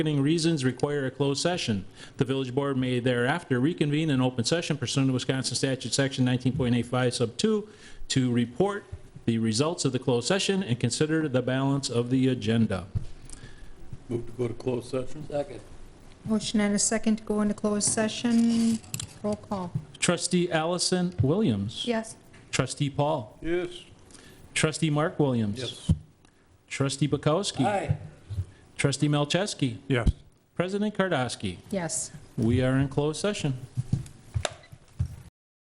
bargaining reasons require a closed session. The village board may thereafter reconvene in open session pursuant to Wisconsin Statute Section 19.85 Sub 2 to report the results of the closed session and consider the balance of the agenda. Move to go to closed session? Second. Motion and a second to go into closed session. Roll call. Trustee Allison Williams. Yes. Trustee Paul. Yes. Trustee Mark Williams. Yes. Trustee Bukowski. Aye. Trustee Melchesky. Yes. President Kardoski. Yes. We are in closed session.